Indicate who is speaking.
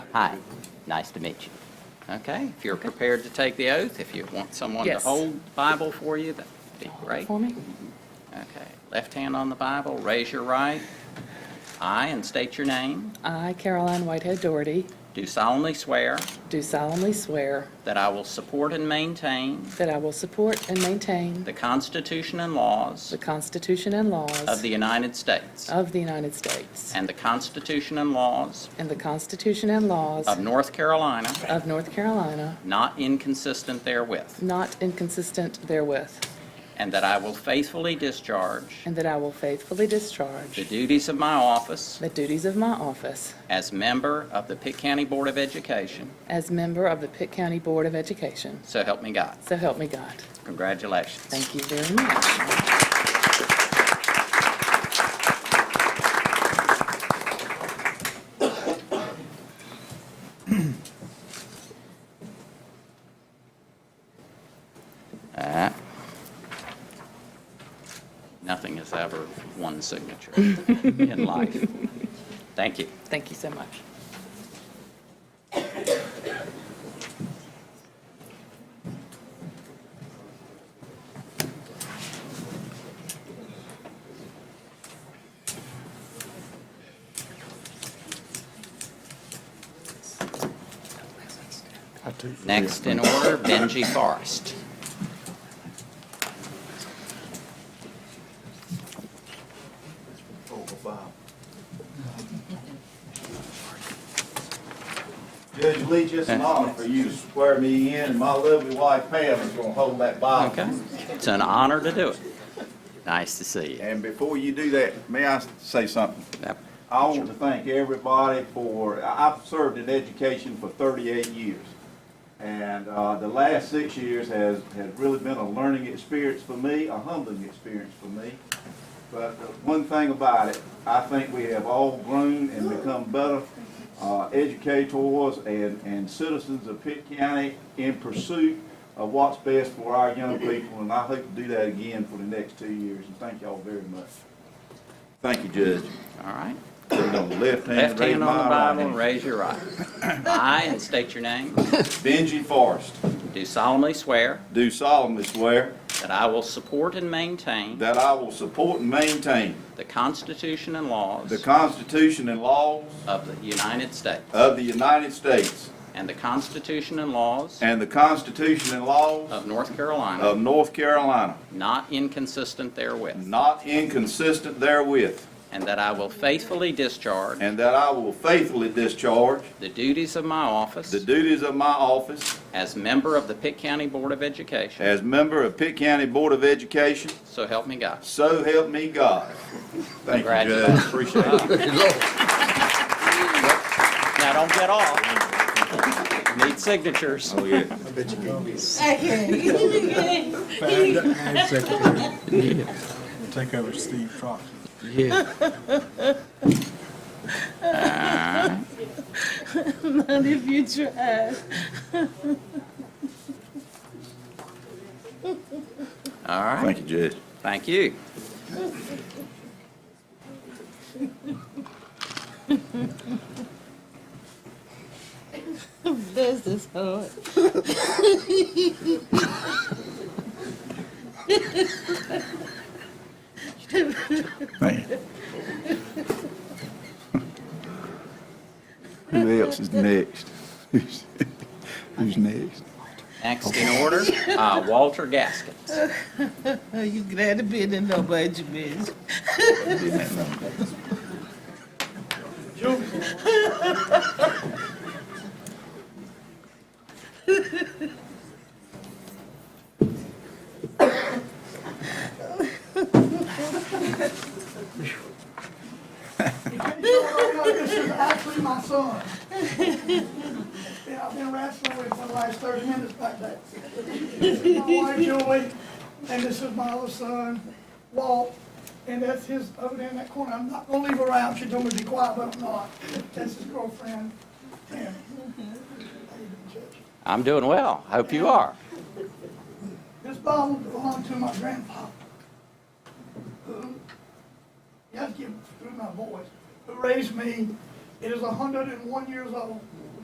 Speaker 1: Hi, nice to meet you. Okay, if you're prepared to take the oath, if you want someone to
Speaker 2: Yes.
Speaker 1: hold the Bible for you, that'd be great.
Speaker 2: For me?
Speaker 1: Okay, left hand on the Bible, raise your right. I, and state your name,
Speaker 2: I, Caroline Whitehead Doherty,
Speaker 1: do solemnly swear
Speaker 2: do solemnly swear
Speaker 1: that I will support and maintain
Speaker 2: that I will support and maintain
Speaker 1: the Constitution and laws
Speaker 2: the Constitution and laws
Speaker 1: of the United States
Speaker 2: of the United States
Speaker 1: and the Constitution and laws
Speaker 2: and the Constitution and laws
Speaker 1: of North Carolina,
Speaker 2: of North Carolina,
Speaker 1: not inconsistent therewith,
Speaker 2: not inconsistent therewith,
Speaker 1: and that I will faithfully discharge
Speaker 2: and that I will faithfully
Speaker 1: the
Speaker 2: discharge
Speaker 1: duties of my office
Speaker 2: the duties of my office
Speaker 1: as member of the Pitt County Board of Education,
Speaker 2: as member of the Pitt County Board of Education.
Speaker 1: so help me God.
Speaker 2: So help me God.
Speaker 1: Congratulations.
Speaker 2: Thank you very much.
Speaker 1: Alright. Nothing is ever one signature in life. Thank you.
Speaker 2: Thank you so much.
Speaker 1: Next in order, Benji Forrest.
Speaker 3: Judge Lee, just an honor for you to swear me in, and my lovely wife Pam is gonna hold that Bible.
Speaker 1: Okay. It's an honor to do it. Nice to see you.
Speaker 3: And before you do that, may I say something?
Speaker 1: Yep.
Speaker 3: I want to thank everybody for, I- I've served in education for 38 years. And uh, the last six years has, has really been a learning experience for me, a humbling experience for me. But the one thing about it, I think we have all grown and become better uh, educators and, and citizens of Pitt County in pursuit of what's best for our young people. And I hope to do that again for the next two years, and thank y'all very much. Thank you, Judge.
Speaker 1: All right.
Speaker 3: Put it on the left hand.
Speaker 1: Left
Speaker 3: raise
Speaker 1: hand
Speaker 3: my
Speaker 1: on the
Speaker 3: right
Speaker 1: Bible,
Speaker 3: hand.
Speaker 1: raise your right. I, and state your name,
Speaker 3: Benji Forrest,
Speaker 1: do solemnly swear
Speaker 3: do solemnly swear
Speaker 1: that I will support and maintain
Speaker 3: that I will support and maintain
Speaker 1: the Constitution and
Speaker 3: the
Speaker 1: laws
Speaker 3: Constitution and laws
Speaker 1: of the United States
Speaker 3: of the United States
Speaker 1: and the Constitution and laws
Speaker 3: and the Constitution and laws
Speaker 1: of North Carolina,
Speaker 3: of North Carolina,
Speaker 1: not inconsistent therewith,
Speaker 3: not inconsistent therewith,
Speaker 1: and that I will faithfully discharge
Speaker 3: and that I will faithfully discharge
Speaker 1: the duties of my office
Speaker 3: the duties of my office
Speaker 1: as member of the Pitt County Board of Education,
Speaker 3: as member of Pitt County Board of Education,
Speaker 1: so help me God.
Speaker 3: so help me God. Thank you, Judge.
Speaker 1: Congratulations.
Speaker 3: Appreciate it.
Speaker 1: Now, don't get off. Need signatures.
Speaker 3: Oh, yeah.
Speaker 4: Okay.
Speaker 5: Ad Secretary. Take over Steve Fox.
Speaker 4: Not if you try.
Speaker 1: All right,
Speaker 3: Thank you, Judge.
Speaker 1: thank you.
Speaker 4: This is hard.
Speaker 3: Thank you. Who else is next? Who's who's next?
Speaker 1: Next in order, uh, Walter Gaskins.
Speaker 4: Are you glad to be in the budget, bitch?
Speaker 6: Actually, my son. Yeah, I've been wrestling with for the last thirty minutes back there. This is My wife Julie, and this is my other son, Walt, and that's his, over there in that corner. I'm not gonna leave her out, she told me to be quiet, but I'm not. That's his girlfriend, Tammy. How you doing, Judge?
Speaker 1: I'm doing well. Hope you are.
Speaker 6: This Bible belonged to my grandpa, who, you have to get through my voice, who raised me. It is hundred and one years old.